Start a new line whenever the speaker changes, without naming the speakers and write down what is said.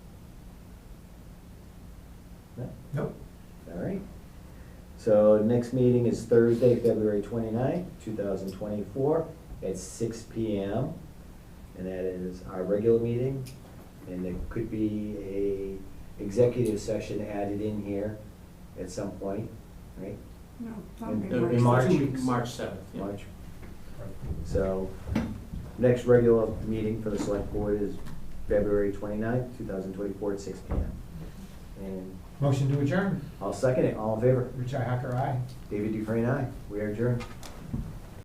No?
Nope.
All right. So next meeting is Thursday, February 29th, thousand twenty-four, at six P M. And that is our regular meeting, and there could be a executive session added in here at some point, right?
No,
In-
probably
in
works.
March?
Two weeks, Uh, March seventh, yeah.
March. So, next regular meeting for the select board is February 29th, thousand twenty-four, at six P M. And
Motion to adjourn.
I'll second it, all in favor?
Richi Hacker, aye.
David Dufresne, aye. We are adjourned.